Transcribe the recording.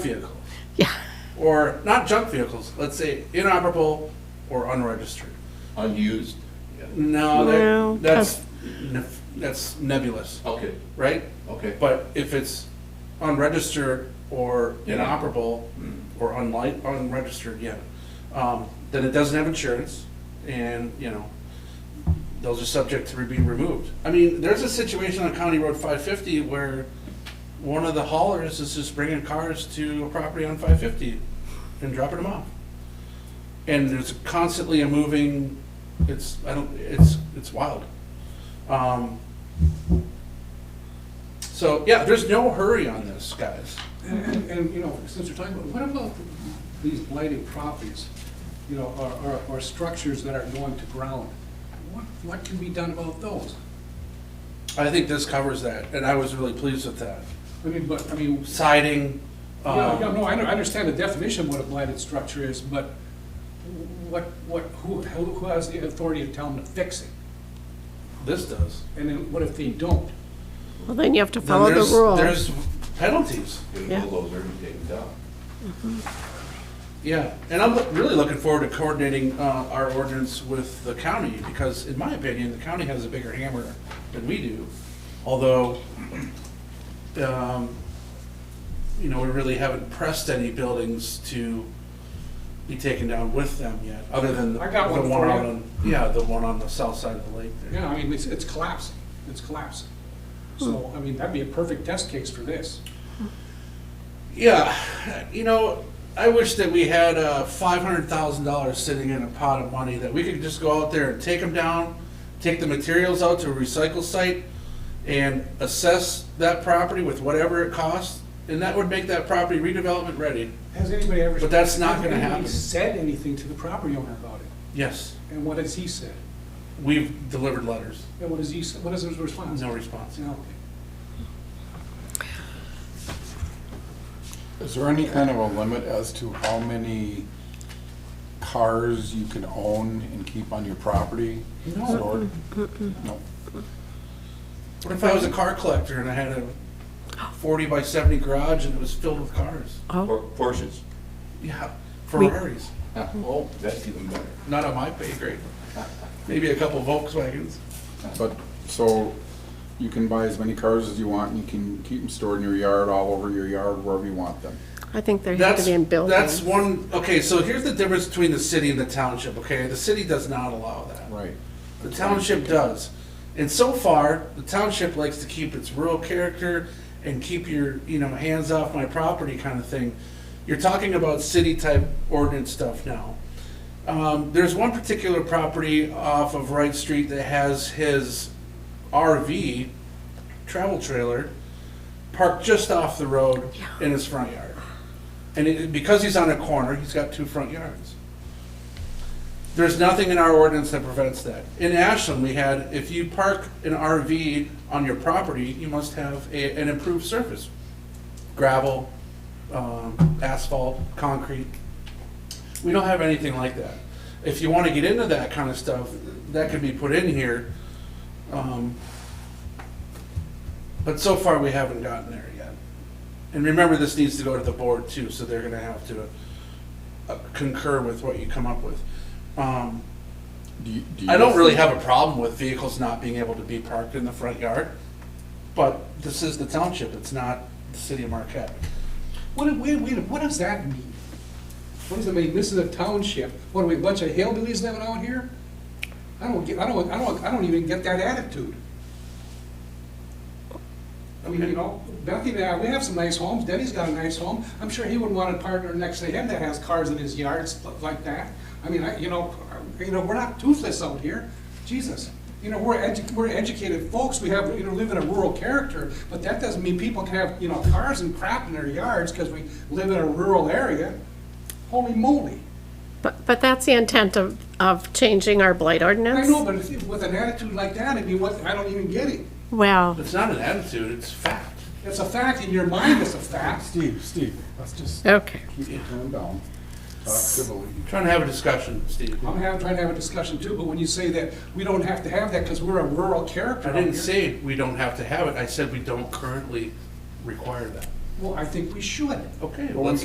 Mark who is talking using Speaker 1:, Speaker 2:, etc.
Speaker 1: vehicle,
Speaker 2: Yeah,
Speaker 1: or not junk vehicles, let's say inoperable or unregistered.
Speaker 3: Unused.
Speaker 1: No,
Speaker 2: No,
Speaker 1: that, that's, nef- that's nebulous,
Speaker 3: Okay,
Speaker 1: right?
Speaker 3: okay.
Speaker 1: But if it's unregistered or
Speaker 3: Yeah.
Speaker 1: inoperable or unlike, unregistered, yeah, um, then it doesn't have insurance and, you know, those are subject to be removed. I mean, there's a situation on County Road five fifty where one of the haulers is just bringing cars to a property on five fifty and dropping them off. And there's constantly a moving, it's, I don't, it's, it's wild. Um, so, yeah, there's no hurry on this, guys.
Speaker 4: And- And, and, you know, since you're talking about, what about these blighted properties? You know, or, or, or structures that are going to ground? What, what can be done about those?
Speaker 1: I think this covers that, and I was really pleased with that.
Speaker 4: I mean, but, I mean, s-
Speaker 1: Siding,
Speaker 4: you know, you know,
Speaker 1: um,
Speaker 4: no, I under- I understand the definition of what a blighted structure is, but what, what, who, who who has the authority to tell them to fix it?
Speaker 1: this does.
Speaker 4: And then what if they don't?
Speaker 2: well, then you have to
Speaker 1: Then
Speaker 2: follow the
Speaker 1: there's-
Speaker 2: rules.
Speaker 1: There's penalties,
Speaker 3: Get
Speaker 2: Yeah.
Speaker 3: a bulldozer and take it down.
Speaker 1: yeah. And I'm really looking forward to coordinating uh, our ordinance with the county, because in my opinion, the county has a bigger hammer than we do. Although, um, you know, we really haven't pressed any buildings to be taken down with them yet, other than the
Speaker 4: I got
Speaker 1: the
Speaker 4: one for
Speaker 1: on
Speaker 4: you.
Speaker 1: Yeah, the one on the south side of the lake there.
Speaker 4: Yeah, I mean, it's, it's collapsing, it's collapsing.
Speaker 1: Hmm.
Speaker 4: So, I mean, that'd be a perfect test case for this.
Speaker 1: Yeah, you know, I wish that we had uh, five hundred thousand dollars sitting in a pot of money that we could just go out there and take them down, take the materials out to a recycle site, and assess that property with whatever it costs, and that would make that property redevelopment ready.
Speaker 4: Has anybody ever?
Speaker 1: But that's not
Speaker 4: has
Speaker 1: gonna
Speaker 4: anybody
Speaker 1: happen.
Speaker 4: Said anything to the property owner about it?
Speaker 1: Yes,
Speaker 4: And what has he said?
Speaker 1: we've delivered letters,
Speaker 4: And what has he, said? what is his response?
Speaker 1: no response.
Speaker 4: No.
Speaker 5: Is there any kind of a limit as to how many cars you can own and keep on your property?
Speaker 1: No.
Speaker 5: stored? No.
Speaker 1: What if I was a car collector and I had a forty by seventy garage and it was filled with cars?
Speaker 2: Oh,
Speaker 3: Por- Porsches.
Speaker 1: Yeah, Ferraris,
Speaker 3: Oh, that's even better.
Speaker 1: not on my pay grade. Maybe a couple Volkswagens.
Speaker 5: But, so you can buy as many cars as you want and you can keep them stored in your yard, all over your yard, wherever you want them.
Speaker 2: I think they have to
Speaker 1: That's,
Speaker 2: be in
Speaker 1: that's
Speaker 2: buildings.
Speaker 1: one, okay, so here's the difference between the city and the township, okay? The city does not allow that.
Speaker 5: Right.
Speaker 1: The township does. And so far, the township likes to keep its rural character and keep your, you know, hands off my property kind of thing. You're talking about city-type ordinance stuff now. Um, there's one particular property off of Wright Street that has his RV travel trailer parked just off the road in his front yard. And it, because he's on a corner, he's got two front yards. There's nothing in our ordinance that prevents that. In Ashland, we had, if you park an RV on your property, you must have a, an improved surface. Gravel, um, asphalt, concrete. We don't have anything like that. If you wanna get into that kind of stuff, that could be put in here. Um, But so far, we haven't gotten there yet. And remember, this needs to go to the board too, so they're gonna have to uh, concur with what you come up with. Um,
Speaker 5: Do you- do you
Speaker 1: I don't
Speaker 5: guys
Speaker 1: really
Speaker 5: think-
Speaker 1: have a problem with vehicles not being able to be parked in the front yard, but this is the township, it's not the city of Marquette.
Speaker 4: What, do- wait, wait, what does that mean? What does it mean? This is a township. What, are we, a bunch of hillbillies living out here? I don't get, I don't, I don't, I don't even get that attitude. I mean, you know, Bethany and I, we have some nice homes. Denny's got a nice home. I'm sure he wouldn't want a partner next to him that has cars in his yard, stuff like that. I mean, I, you know, I- you know, we're not toothless out here. Jesus. You know, we're edu, we're educated folks. We have, you know, live in a rural character, but that doesn't mean people can have, you know, cars and crap in their yards because we live in a rural area. Holy moly.
Speaker 2: But, but that's the intent of, of changing our blight
Speaker 4: I
Speaker 2: ordinance.
Speaker 4: know, but if- with an attitude like that, I mean, what, I don't even get it.
Speaker 2: Well,
Speaker 1: It's not an attitude, it's fact.
Speaker 4: It's a fact. In your mind, it's a fact.
Speaker 5: Steve, Steve, let's just
Speaker 2: okay.
Speaker 5: keep it calm down. Talk civilly.
Speaker 1: Trying to have a discussion, Steve.
Speaker 4: I'm having, trying to have a discussion too, but when you say that, we don't have to have that because we're a rural character.
Speaker 1: I didn't say we don't have to have it, I said we don't currently require that.
Speaker 6: Well, I think we should.
Speaker 1: Okay,
Speaker 4: Well,
Speaker 1: let's